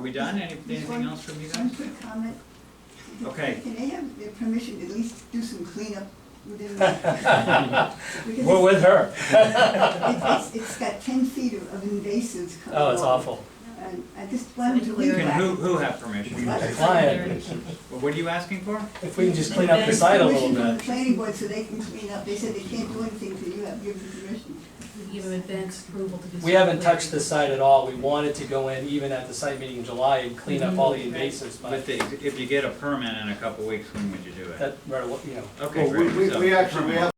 we done? Any- Anything else from you One guys? quick comment. Okay. Can they have their permission to at least do some cleanup within? the- because We're with her. it's- it's- It's got ten feet of of invasives coming Oh, it's along. awful. And I just wanted to clear Can who, that. who have permission? What? The client, Well, What are you asking for? if we can just clean up the site a little Permission from the bit. planning board so they can clean up. They said they can't do anything till you have given permission. Give them advance approval to do. We haven't touched the site at all. We wanted to go in even at the site meeting in July and clean up all the invasives, But but the- if you get a permit in a couple weeks, when would you do it? that, you know, Okay, Well, we, great. we so- we actually, we have a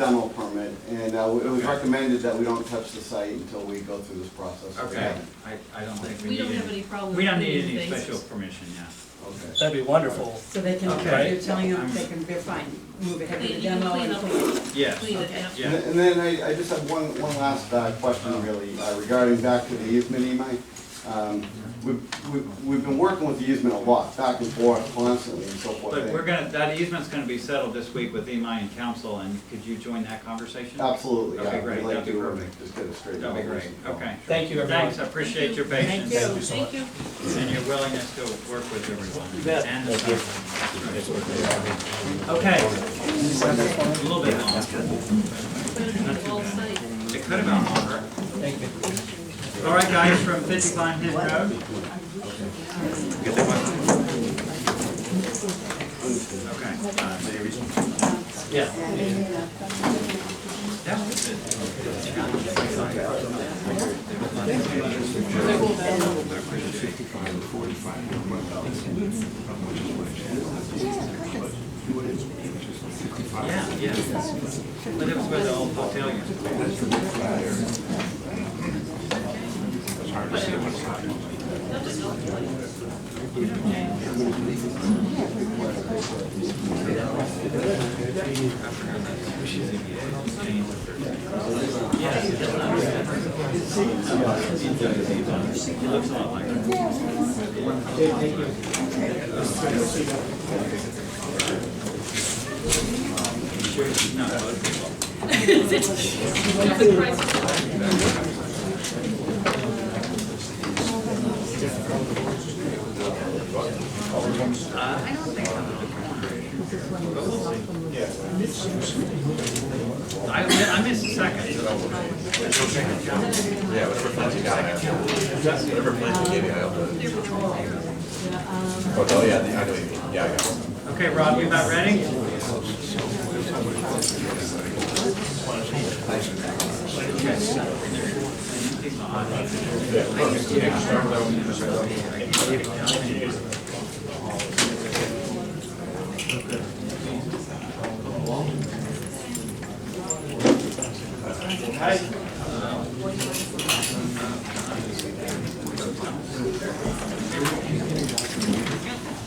demo permit, and uh, it was recommended that we don't touch the site until we go through this process. We Okay, haven't. I, I don't think we We need don't have any, any problem. we don't with need any doing special phases. permission, yeah. Okay. that'd be wonderful. So they can, Okay. you're telling them they can, they're fine, move ahead You with the you can demo clean and up, clean. Yes, clean it, Okay. yeah. Uh-huh. And and then I, I just have one, one last uh, question really uh, regarding back to the easement, Imai. Um, We've, we've- we've been working with the easement a lot, back and forth constantly and so forth. Look, we're gonna, that easement's gonna be settled this week with EMI and council, and could you join that conversation? Absolutely, yeah. Okay, great. We'd like That'd be to, uh, perfect. Just get it straightened That'd out. be great, okay. Thank you, everyone. Thanks, I appreciate your Thank patience you, and you so thank you. your willingness to work with everyone. You bet. And the staff. Okay, a little bit longer, Put it in the whole site. it could have gone longer. Thank you. All right, guys, from fifty Pine Hill Road. Okay. Yeah. That was it. Yeah, yeah. But it was with the old hotel unit. No, it was- What's the price of it? I, I missed a second. Oh, yeah, I know you mean, yeah, I got it. Okay, Rob, you about ready?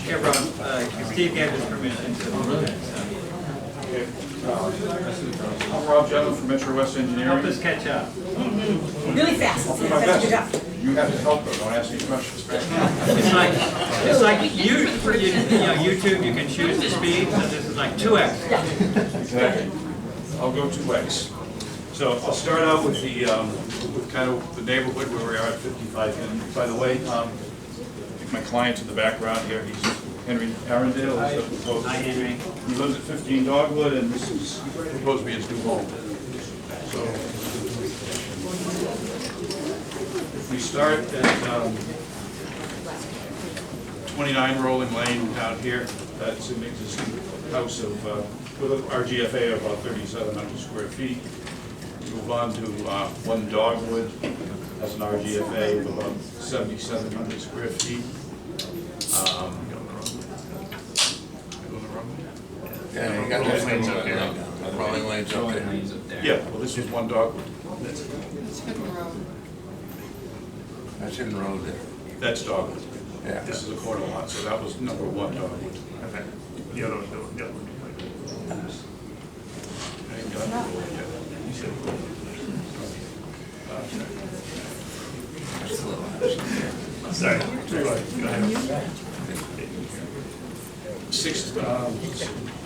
Yeah, Rob, uh, Steve gave his permission to do that, so I'm Rob Jevon from Metro West help Engineering. us catch up. Really fast, that's My good job. best. You have to help though, don't ask me questions. It's like, it's like you, for you, you know, YouTube, you can choose the speed, so this is like two X. Exactly. I'll go two ways. So I'll start out with the, um, with kind of the neighborhood where we are at 55. And by the way, um, I think my client's in the background here, he's Henry Arundel. He's a proposed- Hi, Henry. He lives at 15 Dogwood and this is proposed to be his new home. So if we start at um, 29 Rolling Lane down here, that's an existing house of, uh, with our GFA of about 3,700 square feet. Move on to uh, 1 Dogwood, that's an RGFA of about 7,700 square feet. Um, Go the wrong way? Yeah, you got those things up there, the rolling lanes up there. Yeah, well, this is one dogwood. That's in the road there. That's dogwood. Yeah. This is a corner lot, so that was number one dogwood. The other one, the other That's the little house. Sorry. Six, um,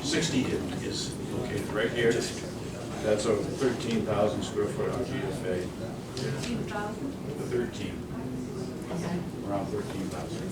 sixty is located right here. That's a thirteen thousand square foot RGFA. Fifteen thousand? Thirteen. around thirteen thousand.